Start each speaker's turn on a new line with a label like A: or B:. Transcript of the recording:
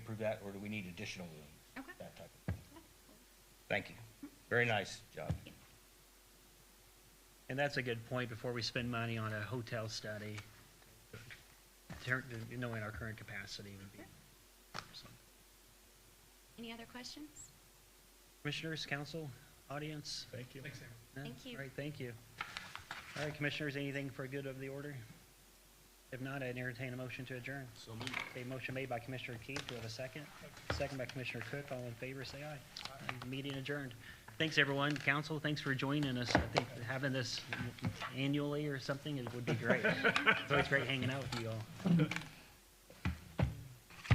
A: that, or do we need additional room?
B: Okay.
A: That type of thing. Thank you. Very nice job.
C: And that's a good point, before we spend money on a hotel study, ter- knowing our current capacity would be. so.
B: Any other questions?
C: Commissioners, council, audience?
D: Thank you.
C: No?
B: Thank you.
C: All right, thank you. All right, commissioners, anything for good of the order? If not, I'd entertain a motion to adjourn.
D: So moved.
C: A motion made by Commissioner Keith, do we have a second? Second by Commissioner Cook, all in favor, say aye. Aye. Meeting adjourned. Thanks, everyone, council, thanks for joining us. I think having this annually or something, it would be great. It's always great hanging out with you all.